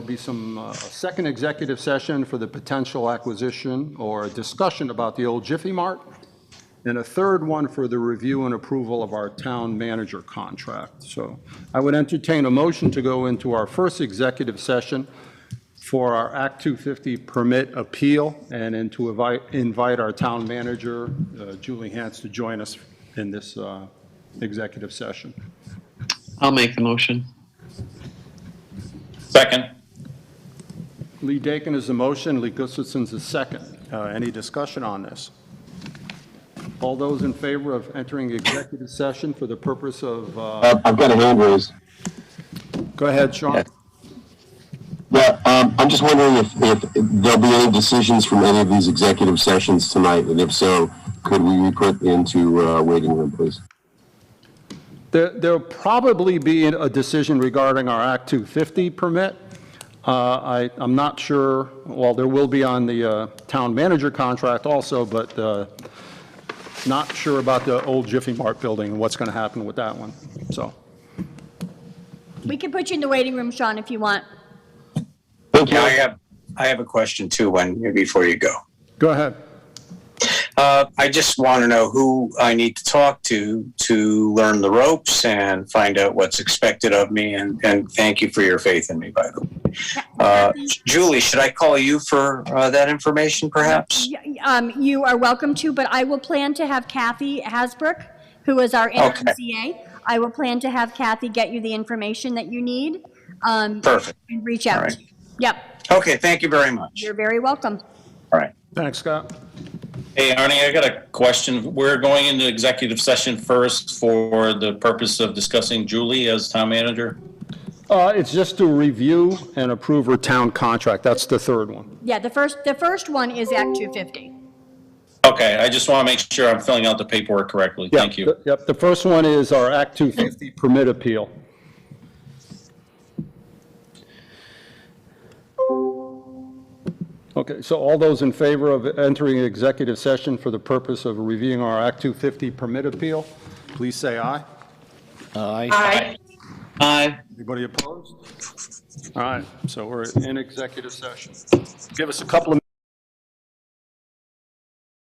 be some, uh, a second executive session for the potential acquisition or discussion about the old Jiffy Mart, and a third one for the review and approval of our town manager contract. So I would entertain a motion to go into our first executive session for our Act 250 permit appeal, and then to invite, invite our town manager, uh, Julie Hantz, to join us in this uh, executive session. I'll make the motion. Second. Lee Dakin is the motion, Lee Gustafson's the second. Uh, Any discussion on this? All those in favor of entering executive session for the purpose of, uh, Uh, I've got a hand raised. go ahead, Sean. Yes. Yeah, um, I'm just wondering if, if there'll be any decisions from any of these executive sessions tonight, and if so, could we be put into, uh, waiting room, please? There- There'll probably be a decision regarding our Act 250 permit. Uh, I, I'm not sure, well, there will be on the uh, town manager contract also, but uh, not sure about the old Jiffy Mart building and what's going to happen with that one, so. We can put you in the waiting room, Sean, if you want. Thank Yeah, I you. have, I have a question too, when, before you go. Go ahead. Uh, I just want to know who I need to talk to to learn the ropes and find out what's expected of me. And, and thank you for your faith in me, by the way. Uh, Julie, should I call you for uh, that information perhaps? Y- Um, you are welcome to, but I will plan to have Kathy Hasbrook, who is our interim Okay. CA. I will plan to have Kathy get you the information that you need. Um, Perfect. And reach out. All right. Yep, Okay, thank you very much. you're very welcome. All right. Thanks, Scott. Hey, Arnie, I got a question. We're going into executive session first for the purpose of discussing Julie as town manager. Uh, It's just to review and approve her town contract. That's the third one. Yeah, the first, the first one is Act 250. Okay, I just want to make sure I'm filling out the paperwork correctly. Yeah, Thank you. th- Yep, the first one is our Act 250 permit appeal. Okay, so all those in favor of entering executive session for the purpose of reviewing our Act 250 permit appeal, please say aye. Aye. Anybody opposed? All right, so we're in executive session. Give us a couple of